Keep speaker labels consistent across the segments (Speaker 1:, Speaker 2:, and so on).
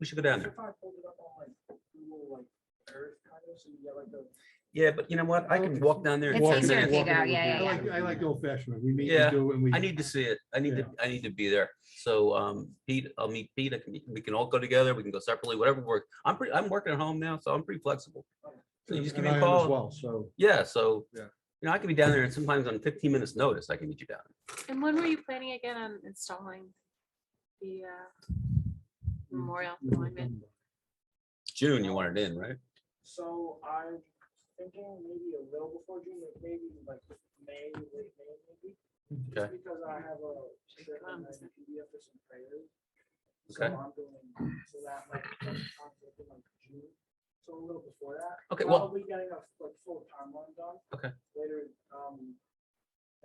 Speaker 1: We should go down there.
Speaker 2: If I pulled it up on like Google, like Earth kind of, so you get like the.
Speaker 1: Yeah, but you know what? I can walk down there. in
Speaker 3: It's
Speaker 1: ten
Speaker 3: easier if you
Speaker 1: minutes.
Speaker 3: go, yeah, yeah,
Speaker 4: I
Speaker 3: yeah.
Speaker 4: like, I like old fashioned. We meet
Speaker 1: Yeah,
Speaker 4: and do and we.
Speaker 1: I need to see it. I need to, I need to be there. So um Pete, I'll meet Pete. I can, we can all go together. We can go separately, whatever works. I'm pretty, I'm working at home now, so I'm pretty flexible. So you just give
Speaker 4: and
Speaker 1: me a
Speaker 4: I am
Speaker 1: call.
Speaker 4: As well, so.
Speaker 1: Yeah, so,
Speaker 4: Yeah.
Speaker 1: you know, I can be down there and sometimes on fifteen minutes notice, I can meet you down.
Speaker 5: And when were you planning again on installing the uh, memorial monument?
Speaker 1: June, you want it in, right?
Speaker 2: So I'm thinking maybe a little before June, like maybe like May, late May maybe. just
Speaker 1: Okay.
Speaker 2: Because I have a trip and I
Speaker 5: Comes.
Speaker 2: need to be up for some prayers. So
Speaker 1: Okay.
Speaker 2: I'm doing, so that might be like conflict in, like, June, so a little before that.
Speaker 1: Okay, well-
Speaker 2: Probably getting a like full timeline done.
Speaker 1: Okay.
Speaker 2: Later, um,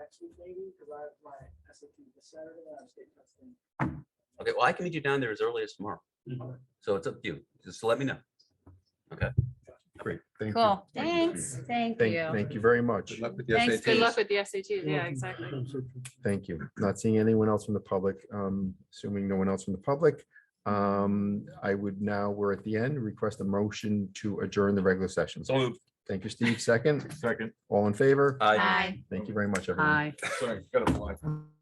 Speaker 2: next week maybe, because I have my SAT this Saturday and I have state testing.
Speaker 1: Okay, well, I can meet you down there as early as tomorrow.
Speaker 4: Mm-hmm.
Speaker 1: So it's up to you. Just let me know.
Speaker 6: Great, thank you.
Speaker 3: Cool, thanks, thank
Speaker 6: Thank,
Speaker 3: you.
Speaker 6: thank you very much.
Speaker 4: Good luck
Speaker 6: with
Speaker 3: Thanks,
Speaker 5: Good
Speaker 3: Pete.
Speaker 5: luck with the SATs. Yeah, exactly.
Speaker 6: Thank you. Not seeing anyone else from the public, um, assuming no one else from the public. Um, I would now, we're at the end, request a motion to adjourn the regular session.
Speaker 1: So moved.
Speaker 6: Thank you, Steve. Second,
Speaker 4: Second.
Speaker 6: all in favor?
Speaker 1: Aye.
Speaker 3: Bye.
Speaker 6: Thank you very much, everyone.
Speaker 3: Bye.
Speaker 4: Sorry, gotta fly.